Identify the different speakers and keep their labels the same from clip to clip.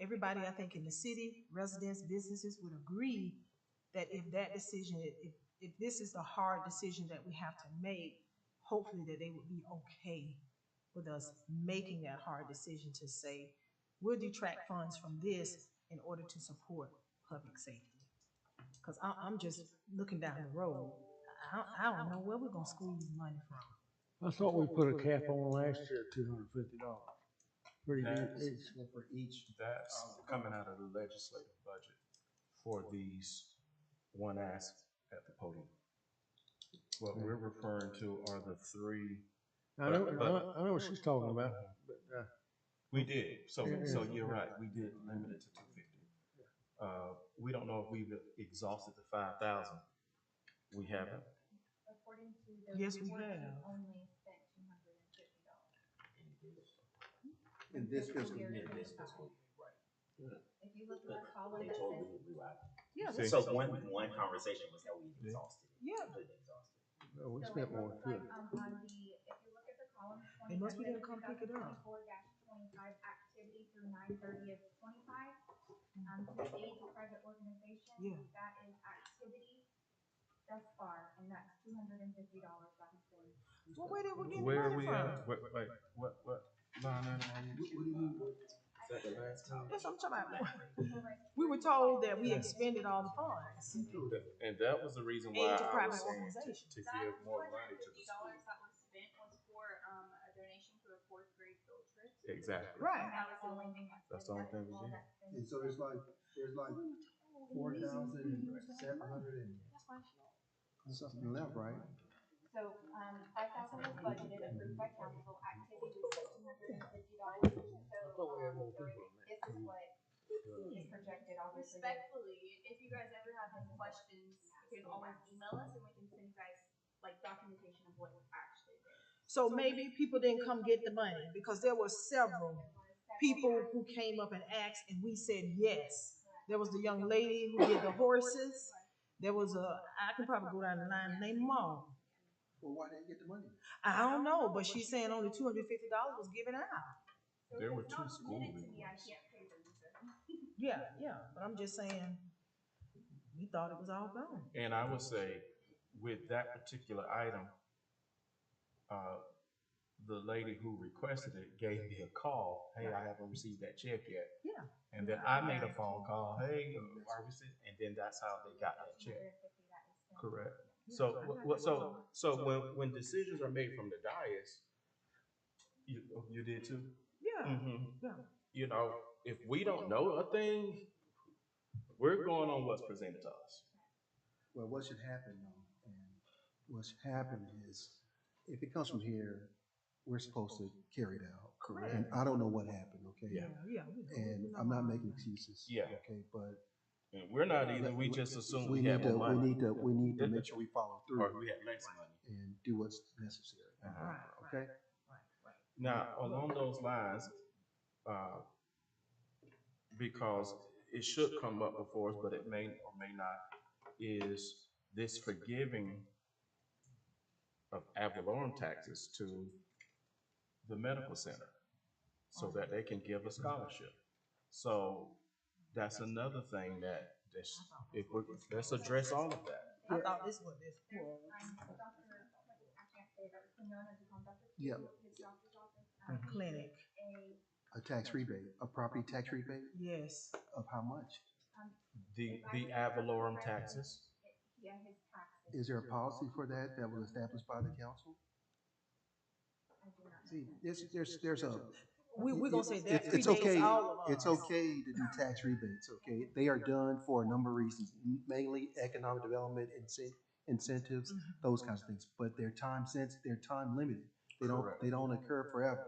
Speaker 1: everybody, I think, in the city, residents, businesses would agree that if that decision, if, if this is the hard decision that we have to make, hopefully that they would be okay with us making that hard decision to say, we'll detract funds from this in order to support public safety. Cause I, I'm just looking down the road. I, I don't know where we're gonna squeeze money from.
Speaker 2: I thought we put a cap on last year, two hundred and fifty dollars. Pretty
Speaker 3: That
Speaker 2: good.
Speaker 3: is for each. That's uh, coming out of the legislative budget for these one ask at the podium. What we're referring to are the three,
Speaker 2: I know, I know- I know what she's talking about.
Speaker 3: we did, so, so
Speaker 2: Yeah.
Speaker 3: you're right, we did limit it to two fifty. Uh, we don't know if we've exhausted the five thousand. We haven't.
Speaker 4: According to the.
Speaker 1: Yes, we
Speaker 4: report, you
Speaker 1: have.
Speaker 4: Only spent two hundred and fifty dollars.
Speaker 5: In this fiscal
Speaker 4: year,
Speaker 5: year.
Speaker 4: this fiscal If you look at the column
Speaker 6: They
Speaker 4: that
Speaker 6: told me
Speaker 4: says,
Speaker 6: to rewind.
Speaker 1: Yeah,
Speaker 3: See?
Speaker 6: So one, one conversation was that we exhausted it.
Speaker 1: Yeah.
Speaker 6: Completely exhausted.
Speaker 2: No, Oh, we
Speaker 4: so
Speaker 2: spent
Speaker 4: it
Speaker 2: more
Speaker 4: looks
Speaker 2: than two
Speaker 4: like
Speaker 2: hundred.
Speaker 4: um, on the, if you look at the column
Speaker 1: They
Speaker 4: twenty.
Speaker 1: must be gonna come pick it up.
Speaker 4: Four twenty-five activity through nine thirty of twenty-five, um, to aid the private organization.
Speaker 1: Yeah.
Speaker 4: That is activity thus far, and that's two hundred and fifty dollars by the state.
Speaker 1: Well, where did we get the
Speaker 3: Where are
Speaker 1: money
Speaker 3: we at?
Speaker 1: from?
Speaker 3: Wait, wait, what, what? line item are you-
Speaker 1: That's what I'm talking about.
Speaker 4: So right
Speaker 1: We were told that we expended all the funds.
Speaker 3: And that was the reason
Speaker 1: Aid
Speaker 3: why
Speaker 1: to
Speaker 3: I was
Speaker 1: private
Speaker 3: saying to,
Speaker 1: organizations.
Speaker 3: to
Speaker 7: That
Speaker 3: give more money to the
Speaker 7: $250
Speaker 3: school.
Speaker 7: That was spent was for, um, a donation to a fourth grade field trip.
Speaker 3: Exactly.
Speaker 1: Right.
Speaker 7: That was the only thing.
Speaker 3: That's the only
Speaker 4: That's
Speaker 3: thing we
Speaker 4: all
Speaker 3: did.
Speaker 4: that's been-
Speaker 5: And so there's like, there's like four thousand seven hundred and something left, right?
Speaker 4: So, um, five thousand was budgeted, approved by council, activity was two hundred and fifty dollars, so, um, this is what is projected, obviously.
Speaker 7: Respectfully, if you guys ever have any questions, you can always email us and we can send you guys like documentation of what was actually. there.
Speaker 1: So maybe people didn't come get the money because there were several people who came up and asked and we said yes. There was the young lady who did the horses. There was a, I can probably go down the line, named Mom.
Speaker 5: Well, why didn't you get the money?
Speaker 1: I don't know, but she's saying only two hundred fifty dollars was given out.
Speaker 7: So
Speaker 3: There
Speaker 7: if
Speaker 3: were
Speaker 7: it's
Speaker 3: two
Speaker 7: not
Speaker 3: school
Speaker 7: submitted to me, I
Speaker 3: reports.
Speaker 7: can't pay them, so.
Speaker 1: Yeah, yeah, but I'm just saying, we thought it was all gone.
Speaker 3: And I would say with that particular item, uh, the lady who requested it gave me a call. Hey, I haven't received that check yet.
Speaker 1: Yeah.
Speaker 3: And then I made a phone call. Hey, uh, are we? sent- And then that's how they got that check.
Speaker 4: $250 that is spent.
Speaker 3: Correct. So, wh- wh- so, so when, when decisions are made from the dais, you, you did too?
Speaker 1: Yeah,
Speaker 3: Mhm.
Speaker 1: yeah.
Speaker 3: You know, if we don't know a thing, we're going on what's presented to us.
Speaker 5: Well, what should happen though, and what's happened is, if it comes from here, we're supposed to carry it out.
Speaker 1: Correct.
Speaker 5: And I don't know what happened, okay?
Speaker 1: Yeah, yeah. we know.
Speaker 5: And I'm not making excuses.
Speaker 3: Yeah.
Speaker 5: Okay, but.
Speaker 3: And we're not either, we just assume we
Speaker 5: need
Speaker 3: have
Speaker 5: to-
Speaker 3: more
Speaker 5: We
Speaker 3: money.
Speaker 5: need to, we need to make sure we follow
Speaker 3: Or
Speaker 5: through
Speaker 3: we have less money.
Speaker 5: and do what's necessary.
Speaker 3: Uh-huh.
Speaker 1: Right, right,
Speaker 5: Okay?
Speaker 1: right, right.
Speaker 3: Now, along those lines, uh, because it should come up before us, but it may or may not, is this forgiving of ad valorem taxes to the medical center so that they can give a scholarship. So that's another thing that, that's, if we, let's address all of that.
Speaker 1: I thought this was this.
Speaker 4: Um, Dr., I can't say that, it's known as a doctor.
Speaker 5: Yeah.
Speaker 4: His doctor's office. um, he
Speaker 1: Clinic.
Speaker 4: did
Speaker 5: A tax rebate, a property tax rebate
Speaker 1: Yes,
Speaker 5: of how much?
Speaker 4: A, um,
Speaker 3: The, the ad valorem taxes,
Speaker 4: it- yeah, his taxes.
Speaker 5: Is there a policy for that that was established by the council?
Speaker 4: I do not know.
Speaker 5: See, there's, there's, there's a.
Speaker 1: we, we're gonna say that
Speaker 5: It's- it's
Speaker 1: predates
Speaker 5: okay-
Speaker 1: all of us.
Speaker 5: It's okay to do tax rebates, okay? They are done for a number of reasons, mainly economic development, incen- incentives,
Speaker 1: Mm-hmm.
Speaker 5: those kinds of things. But they're time sensitive, they're time limited. They don't,
Speaker 3: Correct.
Speaker 5: they don't occur forever.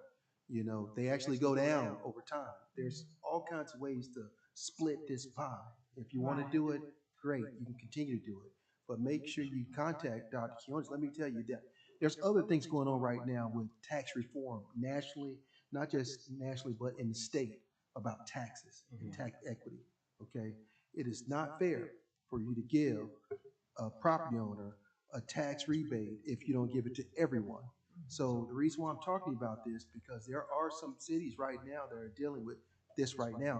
Speaker 5: You know, they actually go down Mm-hmm. over time. There's all kinds of ways to split this pie. If you want to do it, great, you can continue to do it. But make sure you contact Dr. Quinones. Let me tell you that there's other things going on right now with tax reform nationally, not just nationally, but in the state about taxes and tax equity, okay? It is Mm-hmm. not fair for you to give a property owner a tax rebate if you don't give it to everyone. Mm-hmm. So the reason why I'm talking about this, because there are some cities right now that are dealing with this right now.